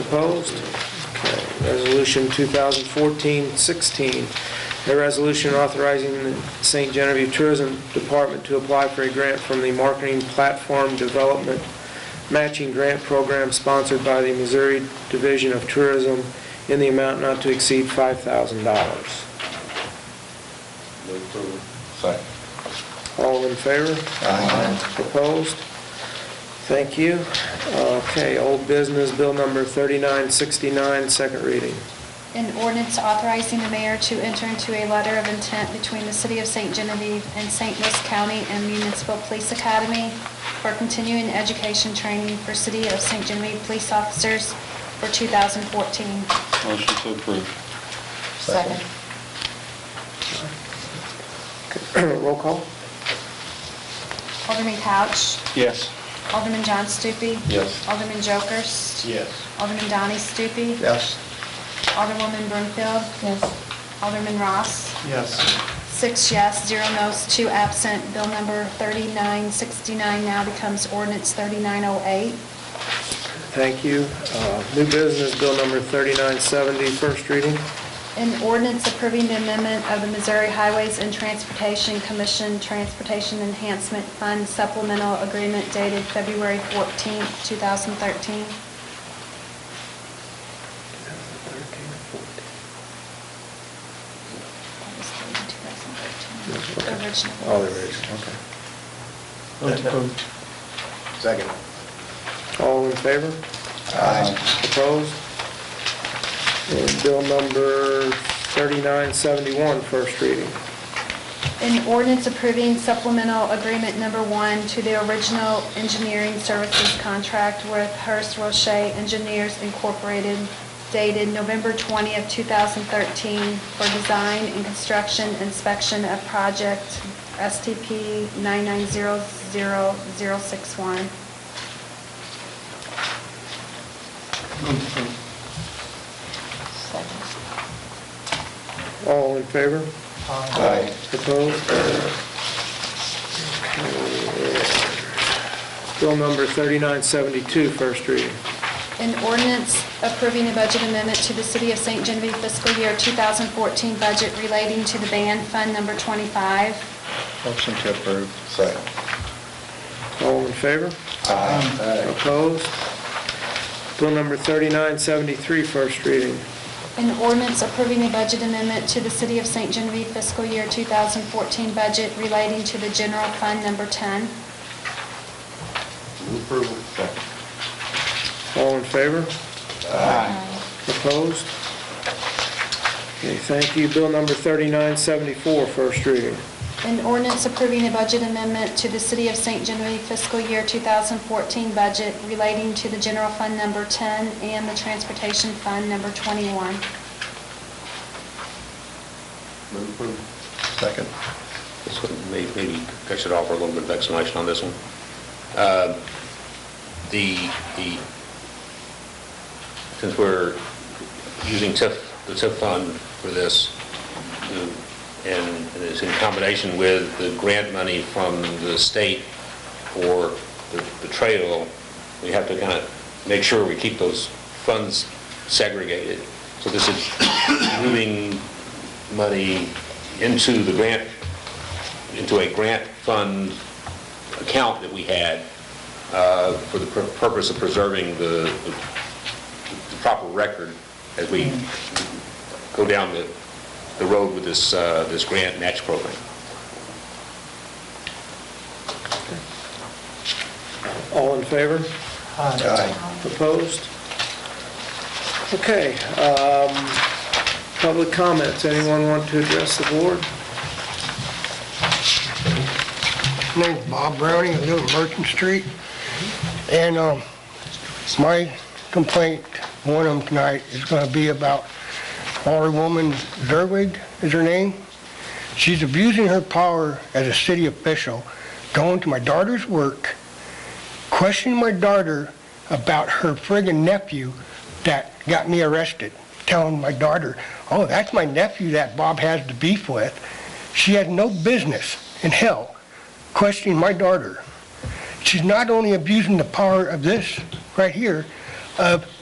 Opposed? Okay. Resolution 2014-16, a resolution authorizing the St. Genevieve Tourism Department to apply for a grant from the Marketing Platform Development Matching Grant Program sponsored by the Missouri Division of Tourism in the amount not to exceed $5,000. Move approval. Second. All in favor? Aye. Opposed? Thank you. Okay, old business, bill number 3969, second reading. An ordinance authorizing the mayor to enter into a letter of intent between the City of St. Genevieve and St. Louis County and Municipal Police Academy for continuing education training for City of St. Genevieve police officers for 2014. Motion to approve. Second. Roll call? Alderman Couch. Yes. Alderman John Stupi. Yes. Alderman Jokers. Yes. Alderman Donnie Stupi. Yes. Alderwoman Brumfield. Yes. Alderman Ross. Yes. Six yes, zero no's, two absent. Bill number 3969 now becomes ordinance 3908. Thank you. Uh, New business, bill number 3970, first reading. An ordinance approving the amendment of the Missouri Highways and Transportation Commission Transportation Enhancement Fund Supplemental Agreement dated February 14, 2013. The original. All the readings, Second. All in favor? Aye. Opposed? And bill number 3971, first reading. An ordinance approving supplemental agreement number one to the original engineering services contract with Hearst Roche Engineers Incorporated dated November 20th, 2013 for design and construction inspection of project STP 9900061. Second. All in favor? Aye. Opposed? Bill number 3972, first reading. An ordinance approving a budget amendment to the City of St. Genevieve fiscal year 2014 budget relating to the band fund number 25. Motion to approve. Second. All in favor? Aye. Opposed? Bill number 3973, first reading. An ordinance approving a budget amendment to the City of St. Genevieve fiscal year 2014 budget relating to the general fund number 10. Move approval. Second. All in favor? Aye. Opposed? Okay, thank you. Bill number 3974, first reading. An ordinance approving a budget amendment to the City of St. Genevieve fiscal year 2014 budget relating to the general fund number 10 and the transportation fund number 21. Move approval. Second. So may- Maybe I should offer a little bit of explanation on this one. Uh, The, the, since we're using TIF, the TIF fund for this, the- and it's in combination with the grant money from the state for the the trail, we have to kind of make sure we keep those funds segregated. So this is moving money into the grant into a grant fund account that we had uh, for the pur- purpose of preserving the the- the proper record as we go down the the road with this, uh, this grant match program. All in favor? Aye. Opposed? Okay, um, public comments. Anyone want to address the board? My name's Bob Browning, I live on Merchant Street, and um, my complaint, one of them tonight, is going to be about Alderwoman Zerwig, is her name. She's abusing her power as a city official, going to my daughter's work, questioning my daughter about her friggin' nephew that got me arrested, telling my daughter, "Oh, that's my nephew that Bob has the beef with." She has no business in hell questioning my daughter. She's not only abusing the power of this right here, of